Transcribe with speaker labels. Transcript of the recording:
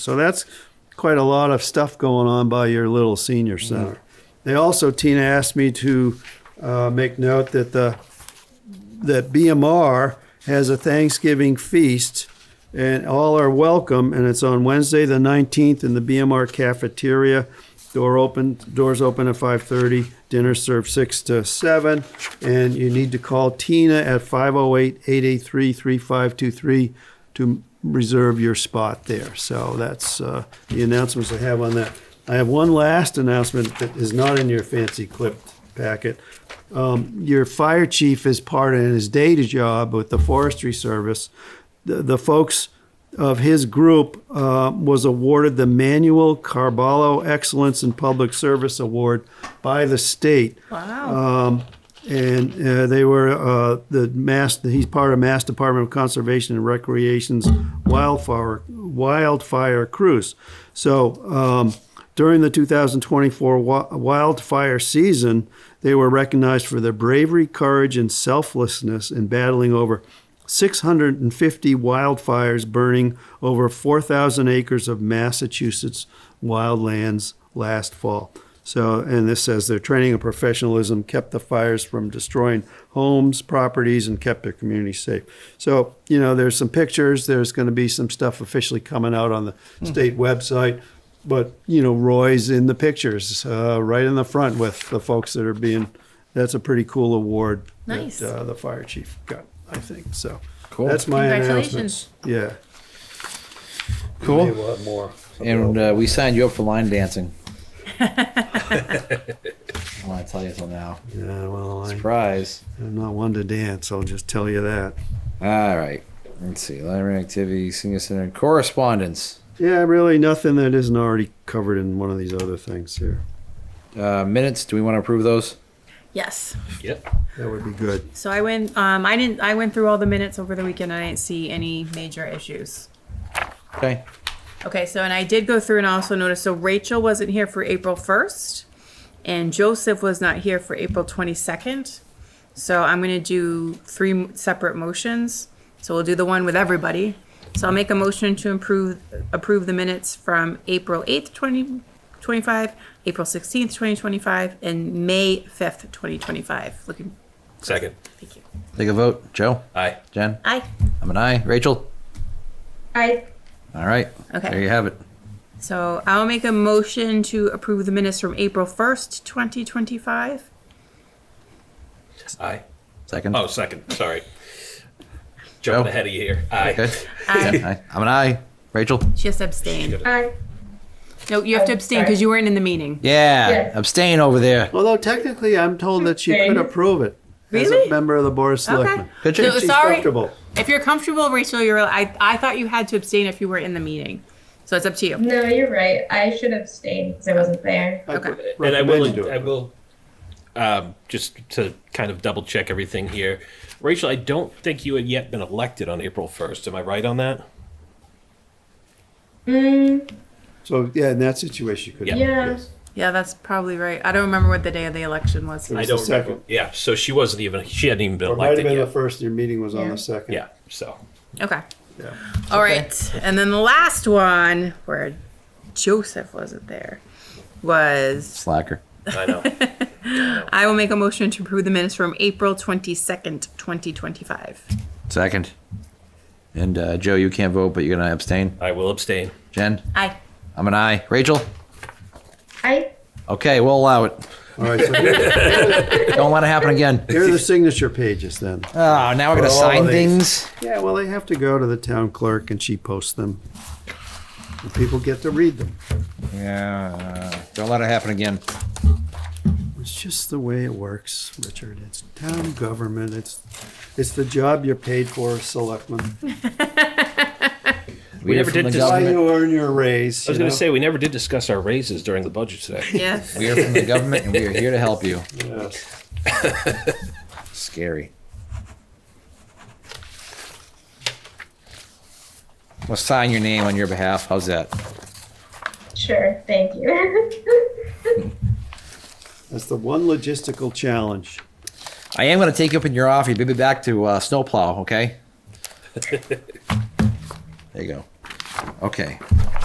Speaker 1: So that's quite a lot of stuff going on by your little senior center. They also, Tina asked me to uh, make note that the, that BMR has a Thanksgiving feast and all are welcome and it's on Wednesday, the 19th in the BMR cafeteria. Door open, doors open at 5:30, dinner served 6 to 7. And you need to call Tina at 508-883-3523 to reserve your spot there. So that's uh, the announcements I have on that. I have one last announcement that is not in your fancy clipped packet. Um, Your fire chief is part of his day to job with the forestry service. The the folks of his group uh, was awarded the Manuel Carballo Excellence in Public Service Award by the state.
Speaker 2: Wow.
Speaker 1: Um, and uh, they were uh, the mass. He's part of Mass Department of Conservation and Recreation's wildfire wildfire cruise. So um, during the 2024 wi- wildfire season, they were recognized for their bravery, courage, and selflessness in battling over 650 wildfires burning over 4,000 acres of Massachusetts wildlands last fall. So, and this says their training and professionalism kept the fires from destroying homes, properties, and kept their community safe. So, you know, there's some pictures, there's going to be some stuff officially coming out on the state website. But, you know, Roy's in the pictures, uh, right in the front with the folks that are being, that's a pretty cool award
Speaker 2: Nice.
Speaker 1: that uh, the fire chief got, I think. So,
Speaker 3: Cool.
Speaker 1: that's my
Speaker 2: Congratulations.
Speaker 1: announcements. Yeah. Maybe
Speaker 3: Cool.
Speaker 1: we'll have more.
Speaker 3: And uh, we signed you up for line dancing. I want to tell you till now.
Speaker 1: Yeah, well, I,
Speaker 3: Surprise.
Speaker 1: I'm not one to dance. I'll just tell you that.
Speaker 3: All right. Let's see. Library activity, senior center, and correspondence.
Speaker 1: Yeah, really, nothing that isn't already covered in one of these other things here.
Speaker 3: Uh, minutes. Do we want to approve those?
Speaker 2: Yes.
Speaker 1: That would be good.
Speaker 2: So I went. Um, I didn't. I went through all the minutes over the weekend. I didn't see any major issues.
Speaker 3: Okay.
Speaker 2: Okay. So and I did go through and also notice. So Rachel wasn't here for April first, and Joseph was not here for April twenty second. So I'm gonna do three m- separate motions. So we'll do the one with everybody. So I'll make a motion to improve approve the minutes from April eighth, twenty twenty five, April sixteenth, twenty twenty five, and May fifth, twenty twenty five. Looking.
Speaker 4: Second.
Speaker 2: Thank you.
Speaker 3: Take a vote. Joe?
Speaker 4: Aye.
Speaker 3: Jen?
Speaker 2: Aye.
Speaker 3: I'm an aye. Rachel?
Speaker 2: Aye.
Speaker 3: All right.
Speaker 2: Okay.
Speaker 3: There you have it.
Speaker 2: So I'll make a motion to approve the minutes from April 1st, 2025.
Speaker 4: Aye.
Speaker 3: Second.
Speaker 4: Oh, second. Sorry. Jumping
Speaker 3: Joe?
Speaker 4: ahead of you here. Aye.
Speaker 3: Okay. Yeah, aye. I'm an aye. Rachel?
Speaker 2: Just abstain.
Speaker 5: Aye.
Speaker 2: No, you have to abstain because you weren't in the meeting.
Speaker 3: Yeah.
Speaker 5: Yes.
Speaker 3: Abstain over there.
Speaker 1: Although technically, I'm told that she could
Speaker 5: Okay.
Speaker 1: approve it as
Speaker 2: Really?
Speaker 1: a member of the board of selectmen.
Speaker 2: Okay.
Speaker 3: Could you?
Speaker 2: No,
Speaker 1: She's
Speaker 2: sorry.
Speaker 1: comfortable.
Speaker 2: If you're comfortable, Rachel, you're, I, I thought you had to abstain if you were in the meeting. So it's up to you.
Speaker 5: No, you're right. I should abstain because I wasn't there.
Speaker 1: I
Speaker 2: Okay.
Speaker 1: would
Speaker 4: And I
Speaker 1: recommend
Speaker 4: will.
Speaker 1: you do it.
Speaker 4: I will. Um, just to kind of double check everything here, Rachel, I don't think you had yet been elected on April first. Am I right on that?
Speaker 1: So yeah, in that situation, you could.
Speaker 4: Yeah.
Speaker 5: Yeah.
Speaker 1: yes.
Speaker 2: Yeah, that's probably right. I don't remember what the day of the election was.
Speaker 1: It was
Speaker 4: I don't
Speaker 1: the second.
Speaker 4: Yeah. So she wasn't even. She hadn't even been
Speaker 1: Or it might have
Speaker 4: elected
Speaker 1: been the
Speaker 4: yet.
Speaker 1: first. Your meeting was on
Speaker 5: Yeah.
Speaker 1: the second.
Speaker 4: Yeah. So
Speaker 2: Okay.
Speaker 1: Yeah.
Speaker 2: All right. And then the last one, where Joseph wasn't there, was
Speaker 3: Slacker.
Speaker 4: I know.
Speaker 2: I will make a motion to approve the minutes from April 22nd, 2025.
Speaker 3: Second. And uh, Joe, you can't vote, but you're going to abstain.
Speaker 4: I will abstain.
Speaker 3: Jen?
Speaker 2: Aye.
Speaker 3: I'm an aye. Rachel?
Speaker 5: I
Speaker 3: Okay, we'll allow it.
Speaker 1: All right. So here,
Speaker 3: Don't let it happen again.
Speaker 1: here are the signature pages then.
Speaker 3: Oh, now we're gonna
Speaker 1: For all
Speaker 3: sign
Speaker 1: of these.
Speaker 3: things.
Speaker 1: Yeah, well, they have to go to the town clerk and she posts them. And people get to read them.
Speaker 3: Yeah. Don't let it happen again.
Speaker 1: It's just the way it works, Richard. It's town government. It's it's the job you're paid for, selectman.
Speaker 3: We,
Speaker 4: never did
Speaker 3: the
Speaker 4: decide-
Speaker 1: Why
Speaker 3: government.
Speaker 1: you earn your raise.
Speaker 4: I was
Speaker 1: you
Speaker 4: going
Speaker 1: know?
Speaker 4: to say we never did discuss our raises during the budget today.
Speaker 2: Yes.
Speaker 3: We are from the government, and we are here to help you.
Speaker 1: Yes.
Speaker 3: Scary. We'll sign your name on your behalf. How's that?
Speaker 5: sure. Thank you.
Speaker 1: That's the one logistical challenge.
Speaker 3: I am gonna take you up in your office. You'll be back to uh, snowplow. Okay. there you go. Okay.